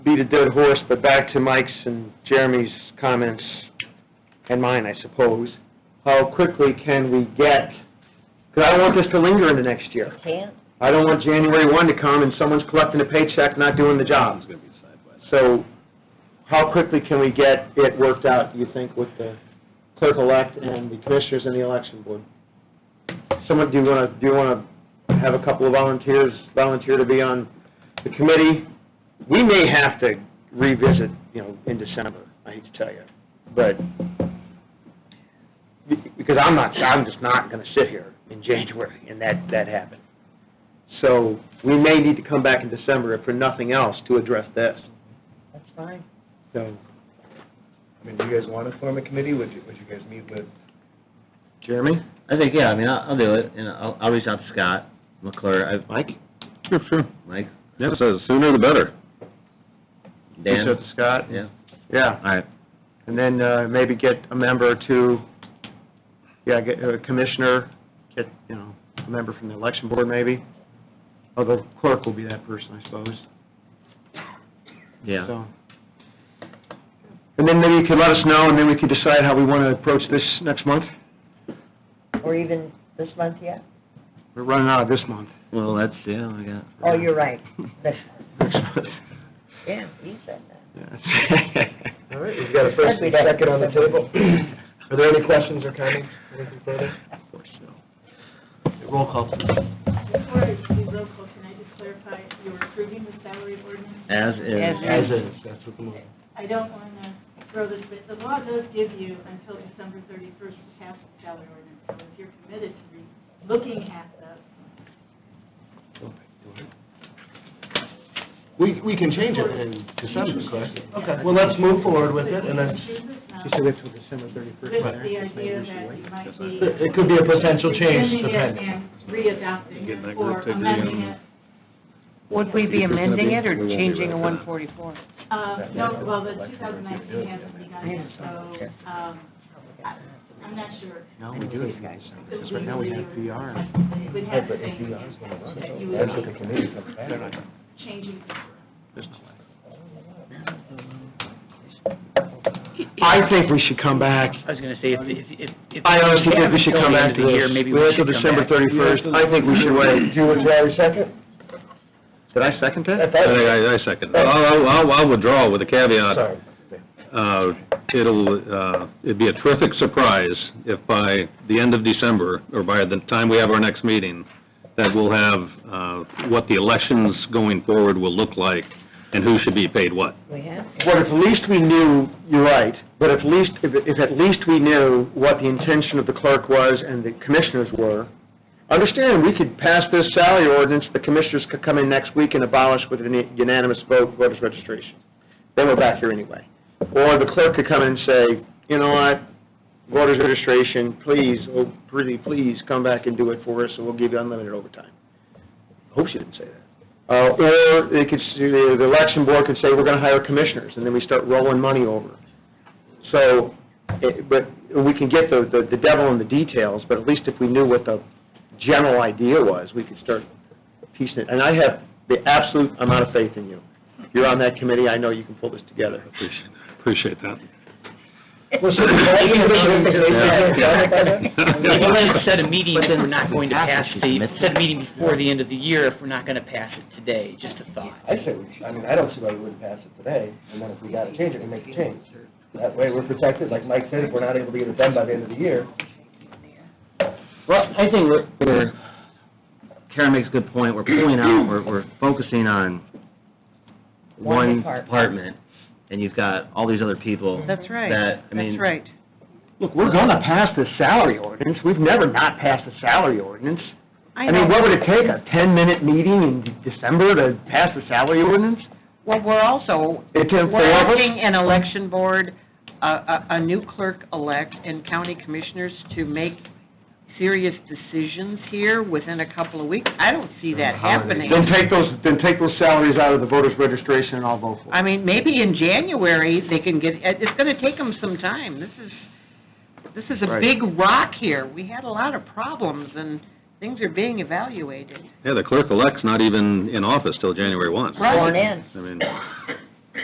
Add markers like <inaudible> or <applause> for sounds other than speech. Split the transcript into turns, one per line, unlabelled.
beat a dead horse, but back to Mike's and Jeremy's comments, and mine, I suppose. How quickly can we get, because I don't want this to linger into next year.
Can't?
I don't want January 1 to come and someone's collecting a paycheck, not doing the job.
gonna be sideways.
So how quickly can we get it worked out, do you think, with the clerk-elect and the commissioners and the election board? Someone, do you want to, do you want to have a couple of volunteers volunteer to be on the committee? We may have to revisit, you know, in December, I hate to tell you, but, be- because I'm not, I'm just not going to sit here in January, and that, that happened. So we may need to come back in December, if for nothing else, to address this.
That's fine.
So
I mean, do you guys want to form a committee? Would you, would you guys meet with?
Jeremy?
I think, yeah, I mean, I'll, I'll do it, and I'll, I'll reach out to Scott McClure, I,
Mike?
Sure, sure.
Mike,
Yeah, so the sooner the better.
Dan,
Reach out to Scott?
yeah,
Yeah,
all right.
and then uh, maybe get a member to, yeah, get a commissioner, get, you know, a member from the election board maybe. Although clerk will be that person, I suppose.
Yeah.
So. And then maybe you could let us know, and then we could decide how we want to approach this next month.
Or even this month yet?
We're running out of this
<laughs>
month.
Well, that's, yeah, I got.
Oh, you're right. Next
Next month.
Yeah, he said that.
Yeah.
All right, we've got a first and a second on the table. Are there any questions or comments, anything further?
Of course, so.
Roll call, please.
Before we roll call, can I just clarify, you're approving the salary ordinance?
As is.
As
is, that's what the motion.
I don't want to throw this, but the law does give you until December 31st to pass the salary ordinance. So if you're committed to re- looking at the,
We, we can change it in December, correct? Okay, well, let's move forward with it, and then
chooses now,
She said it's with December
uh, with
31st.
the idea that you might be
it could be a potential change,
rescinding it
depending.
and readopting
Getting that
it
group
or
to do, um,
amending it.
Would we be
If it's gonna
amending
be-
it or
we won't be
changing a
right
one
back.
forty-four?
Uh, No, well, the 2019 hasn't begun yet, so um, I- I'm not sure.
No, we do it in December, because right now we have VR.
It would have the same impact that you would be changing
I think we should come back.
I was going to say, if, if, if.
I honestly think we should come back to
Until the end of the year,
this.
maybe
We're
we should
until
come back.
December 31st. I think we should wait.
Do you have a second?
Did I second
I
that?
I,
thought-
I I second. I'll, I'll- I'll, I'll withdraw with a caveat.
Sorry.
Uh, it'll, uh, it'd be a terrific surprise if by the end of December, or by the time we have our next meeting, that we'll have, uh, what the elections going forward will look like and who should be paid what.
We have.
But if at least we knew, you're right, but if least, if if at least we knew what the intention of the clerk was and the commissioners were, understand, we could pass this salary ordinance, the commissioners could come in next week and abolish with a unanimous vote voters registration. Then we're back here anyway. Or the clerk could come in and say, you know what, voters registration, please, oh, pretty please, come back and do it for us, and we'll give you unlimited overtime. Hope she didn't say that. Uh, Or they could, s- the the election board could say, we're going to hire commissioners, and then we start rolling money over. So, it- but we can get the the the devil in the details, but at least if we knew what the general idea was, we could start piecing it. And I have the absolute amount of faith in you. You're on that committee, I know you can pull this together.
Appreciate- Appreciate that.
Well, so the election commission is <laughs>
<laughs> Yeah.
Well, then set a meeting
But
if
then
we're not going to
after
pass
she's
the,
missing.
set a meeting before the end of the year if we're not going to pass it today, just a thought.
I say, we should- I mean, I don't see why we wouldn't pass it today, and then if we gotta change it, we make a change. That way, we're protected, like Mike said, if we're not able to get it done by the end of the year.
Well, I think we're- we're, Karen makes a good point, we're pulling out, we're, we're focusing on one
One department.
department, and you've got all these other people.
That's right.
That, I mean-
That's right.
Look, we're going to pass the salary ordinance, we've never not passed a salary ordinance. I
know.
mean, what would it take, a 10-minute meeting in December to pass the salary ordinance?
Well, we're also,
It took four
we're
of us?
asking an election board, a- a a new clerk-elect, and county commissioners to make serious decisions here within a couple of weeks. I don't see that happening.
Then take those, then take those salaries out of the voters' registration and I'll vote for
I
it.
mean, maybe in January, they can get, it- it's going to take them some time. This is, this is a
Right.
big rock here. We had a lot of problems, and things are being evaluated.
Yeah, the clerk-elect's not even in office till Janury 1.
Sworn in.
I mean,